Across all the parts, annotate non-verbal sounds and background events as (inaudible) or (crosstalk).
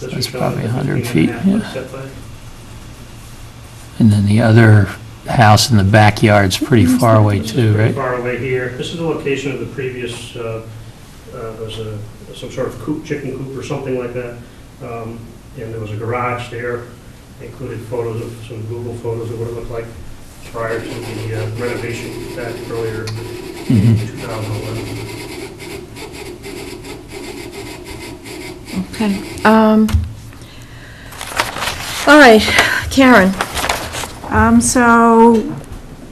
Does That's it come up probably to 100 15 and a feet, half yeah. foot setback? And then the other house in the backyard's pretty far away This is too, pretty right? Far away here. This is the location of the previous, uh, uh, was a, some sort of coop, chicken coop or something like that. Um, And there was a garage there, included photos of, some Google photos of what it looked like prior to the uh, renovation back earlier in Mm-hmm. 2011. Okay. um, All right, Karen. Um, so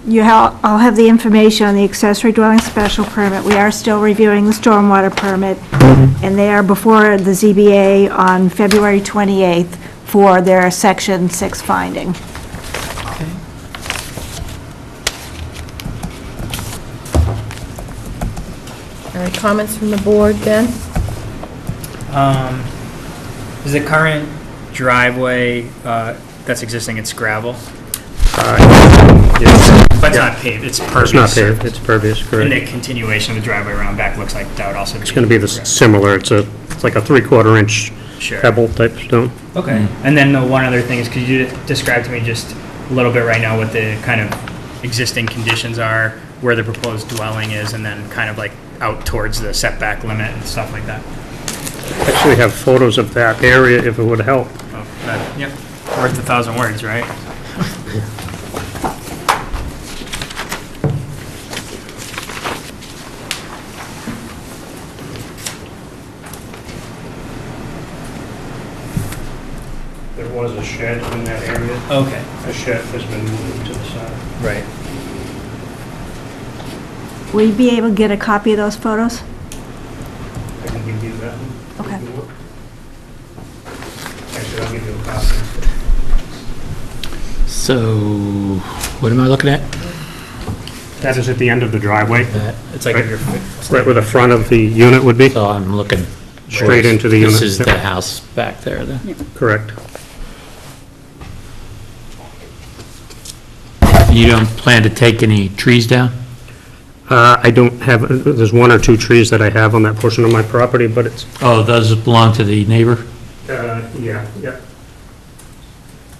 you ha- I'll have the information on the accessory dwelling special permit. We are still reviewing the stormwater permit, and they are before the ZBA on February 28th for their section six finding. Any comments from the board, Ben? Um, is the current driveway, uh, that's existing, it's gravel? But it's not paved, it's Uh, It's pervious. not paved, it's pervious, And correct. the continuation of the driveway around back looks like that would also be. It's going to be the s- similar, it's a, it's like a three-quarter inch Sure. pebble type stone. Okay. And then the one other thing is, could you describe to me just a little bit right now what the kind of existing conditions are, where the proposed dwelling is, and then kind of like out towards the setback limit and stuff like that? Actually have photos of that area if it would help. Oh, that- Yep, worth a thousand words, right? There was a shed in that area. Okay. A shed has been moved to the side. Right. Will you be able to get a copy of those photos? I can give you that. one. Okay. Actually, I'll give you a copy. So, what am I looking at? That is at the end of the driveway, That- It's like if you're right where the front of the unit would be, So I'm looking. Straight into the This unit. is the house back there then. correct. You don't plan to take any trees down? Uh, I don't have, there's one or two trees that I have on that portion of my property, but it's, Oh, those belong to the neighbor? Uh, yeah, yeah.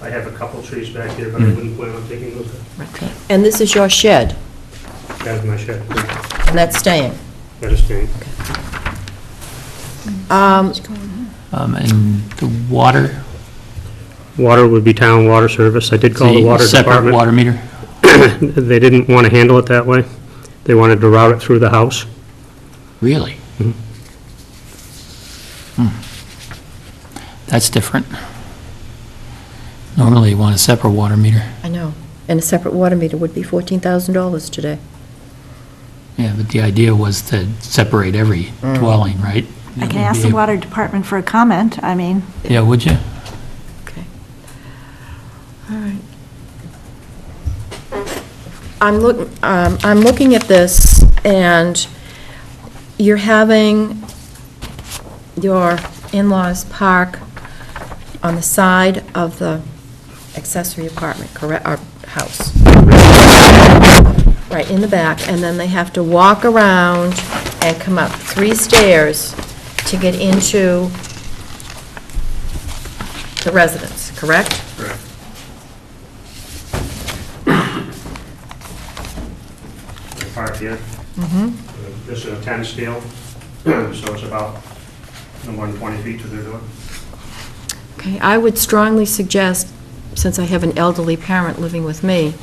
I have a couple trees back there, but I wouldn't plan on taking those. And this is your shed, That's my shed. That and that's staying. is staying. Um, Um, and the water? water would be town water service. I did call the water Separate department. water meter? They didn't want to handle it that way. They wanted to route it through the house. Really? Hmm. That's different. Normally you want a separate water meter. I know, and a separate water meter would be $14,000 today. Yeah, but the idea was to separate every dwelling, right? Mm. I can ask the water department for a comment, I mean. Yeah, would you? Okay. All right. I'm looking, um, I'm looking at this, and you're having your in-laws park on the side of the accessory apartment, correct, or house. Right, in the back, and then they have to walk around and come up three stairs to get into the residence, correct? Correct. Park here. Mm-hmm. This is a 10 scale, (clears throat) so it's about no more than 20 feet to the door. Okay, I would strongly suggest, since I have an elderly parent living with me,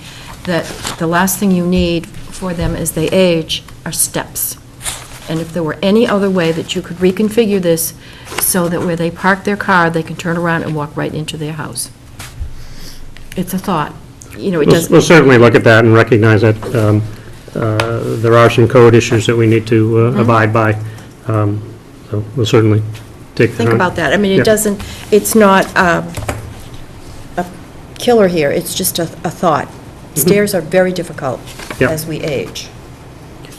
that the last thing you need for them as they age are steps. And if there were any other way that you could reconfigure this so that where they park their car, they can turn around and walk right into their house. It's a thought. You know, it We'll we'll doesn't, certainly look at that and recognize that um, uh, there are some code issues that we need to Mm-hmm. uh, abide by. Um, So we'll certainly take that think on. about that. I mean, it Yep. doesn't, it's not um, a killer here, it's just a a thought. Stairs are very difficult Yep. as we age.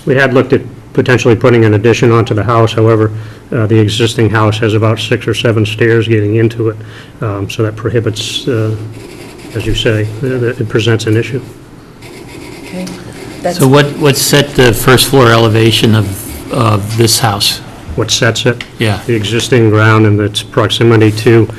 We had looked at potentially putting an addition onto the house, however, uh, the existing house has about six or seven stairs getting into it, Um, so that prohibits, uh, as you say, uh, that it presents an issue. Okay, that's, So what, what set the first floor elevation of, of this house? What sets it, Yeah. the existing ground and its proximity to